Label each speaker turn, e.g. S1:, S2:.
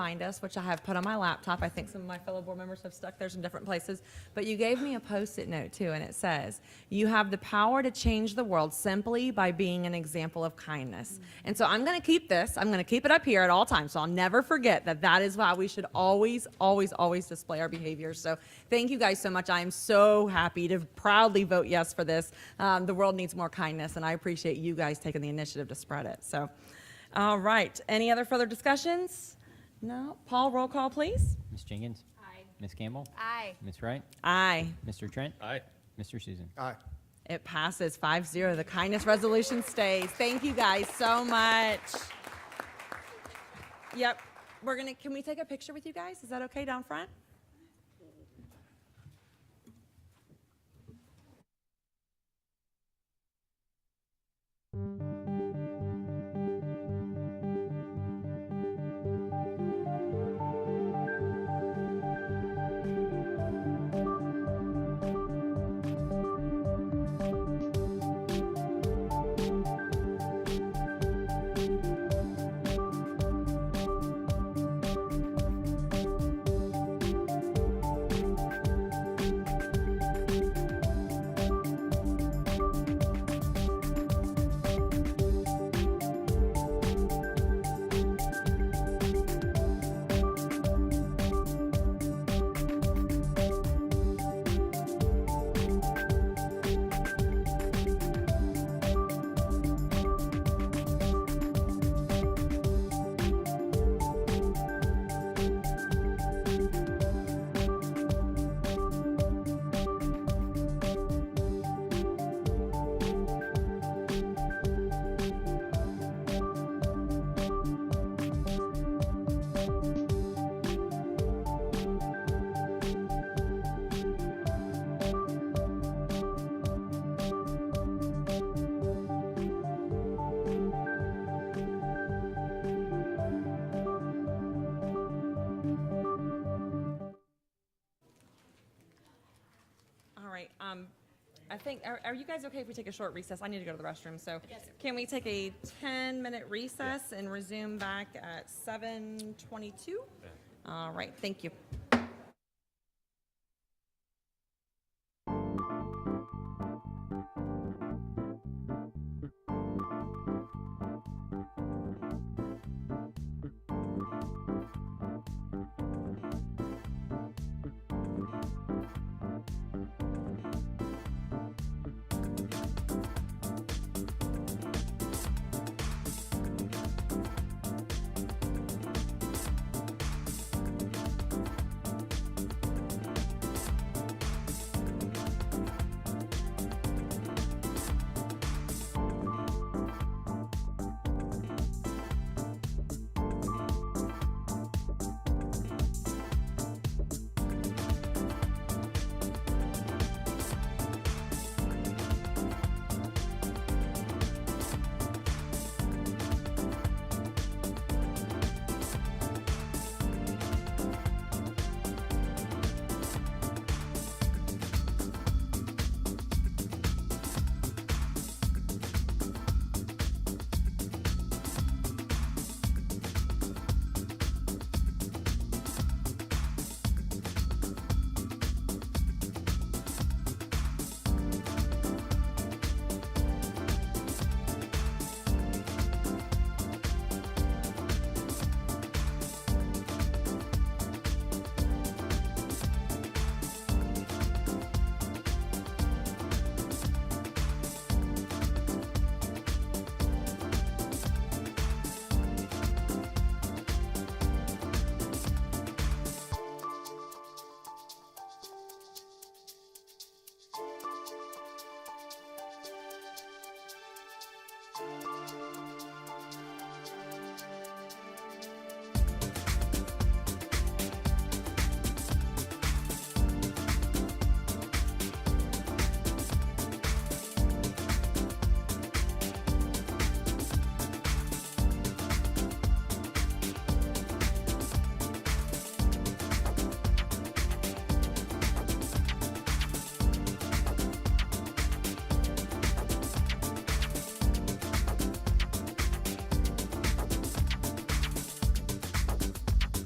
S1: find us, which I have put on my laptop. I think some of my fellow board members have stuck theirs in different places. But you gave me a post-it note too, and it says, "You have the power to change the world simply by being an example of kindness." And so I'm going to keep this. I'm going to keep it up here at all times, so I'll never forget that. That is why we should always, always, always display our behavior. So thank you guys so much. I am so happy to proudly vote yes for this. Um, the world needs more kindness, and I appreciate you guys taking the initiative to spread it. So. All right. Any other further discussions? No. Paul, roll call, please.
S2: Ms. Jenkins? Aye. Ms. Campbell?
S3: Aye.
S2: Ms. Wright?
S1: Aye.
S2: Mr. Trent?
S4: Aye.
S2: Mr. Susan?
S4: Aye.
S1: It passes 5 0. The kindness resolution stays. Thank you guys so much. Yep. We're going to, can we take a picture with you guys? Is that okay down front? All right. Um, I think, are, are you guys okay if we take a short recess? I need to go to the restroom. So can we take a 10 minute recess and resume back at 722? All right. Thank you.